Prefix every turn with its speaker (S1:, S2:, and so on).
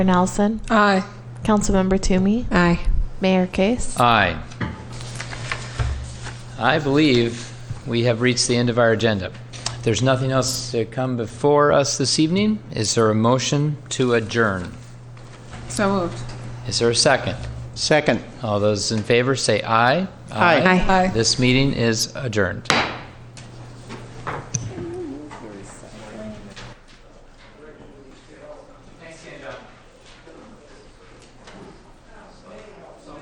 S1: Nelson,
S2: Aye.
S1: Councilmember Toomey,
S2: Aye.
S1: Mayor Case.
S3: Aye. I believe we have reached the end of our agenda. If there's nothing else to come before us this evening, is there a motion to adjourn?
S2: So moved.
S3: Is there a second?
S4: Second.
S3: All those in favor say aye.
S4: Aye.
S2: Aye.
S3: This meeting is adjourned.